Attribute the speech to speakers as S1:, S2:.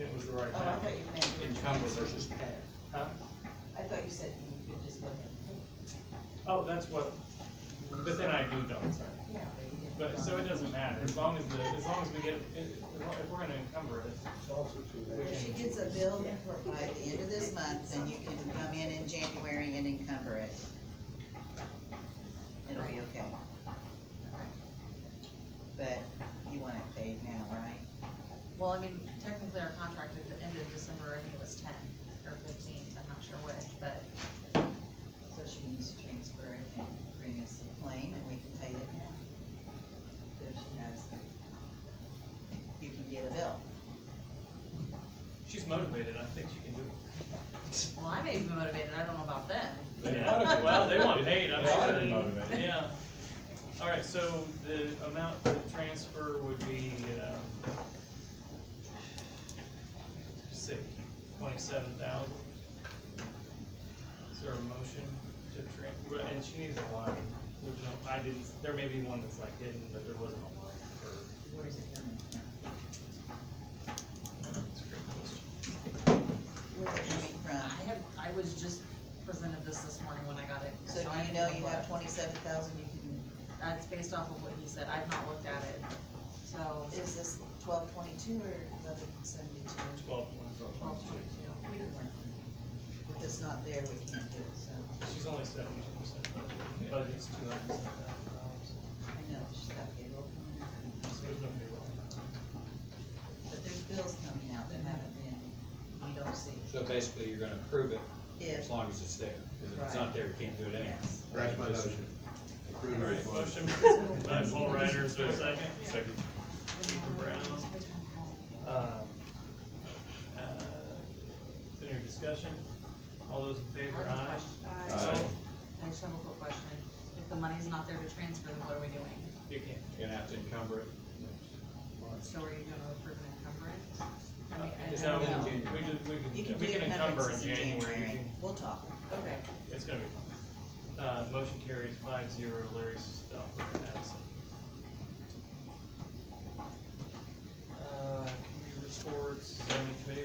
S1: right
S2: Oh, I
S1: now.
S2: thought you meant.
S1: Encumber versus pay. Huh?
S2: I thought you said you could just look at.
S1: Oh, that's what, but then I do double check.
S2: Yeah.
S1: But, so it doesn't matter, as long as the, as long as we get, if we're gonna encumber it,
S3: It's also too late.
S2: If she gets a bill for- by the end of this month, then you can come in in January and encumber it. It'll be okay. But you want it paid now, right?
S4: Well, I mean, technically our contract at the end of December, I think it was ten or fifteen, I'm not sure which, but
S2: So she needs to transfer it and bring us the claim and we can pay it now. If she has, you can get a bill.
S1: she's motivated, I think she can do
S4: well, I may be motivated, I don't know about them.
S1: it.
S5: They oughta
S1: Yeah,
S5: be
S1: well, they want
S5: motivated.
S1: paid, I'm
S5: They oughta
S1: sure.
S5: be motivated.
S1: Yeah. All right, so the amount to transfer would be, um, sick, twenty-seven thousand. Is there a motion to tran, and she needs a line, There's no- I didn't, there may be one that's like hidden, but there wasn't a line for.
S2: Where is it coming from?
S1: That's a great question.
S2: Where's it coming
S4: I
S2: from?
S4: have, I was just presented this this morning when I got it.
S2: So
S4: I can
S2: do you know
S4: look
S2: you
S4: at
S2: have
S4: it.
S2: twenty-seven thousand you can,
S4: That's based off of what he said, I've not looked at it, so.
S2: is this twelve twenty-two or eleven seventy-two?
S1: Twelve.
S4: Twelve twenty-two.
S2: If it's not there, we can't do it, so,
S1: She's only seventy percent budget, but it's two hundred and seven thousand dollars.
S2: I know, she's got payroll coming out.
S1: So there's no payroll.
S2: But there's bills coming out that haven't been, you don't see.
S5: So basically, you're gonna approve it
S2: If,
S5: as long as it's there, because if it's not there, you can't do it anyway.
S2: yes.
S3: That's my motion. Approve
S1: All
S3: it.
S1: right, motion by Paul Ryder, is there a second?
S5: Second.
S1: For Brown. Um, uh, Is there any discussion? All those in favor, aye?
S5: Aye.
S1: So,
S4: I just have a quick question, if the money's not there to transfer, then what are we doing?
S1: You can't.
S5: You're gonna have to encumber it.
S4: So are you gonna approve an encumbrance? I mean, I
S1: Is
S4: don't
S1: that what
S4: know.
S1: we do? We did- we can-
S2: You can do
S1: we can
S2: it
S1: encumber in
S2: conferences in
S1: January.
S2: January, we'll talk.
S4: Okay.
S1: It's gonna be fun. Uh, motion carries five zero, Larry's absent.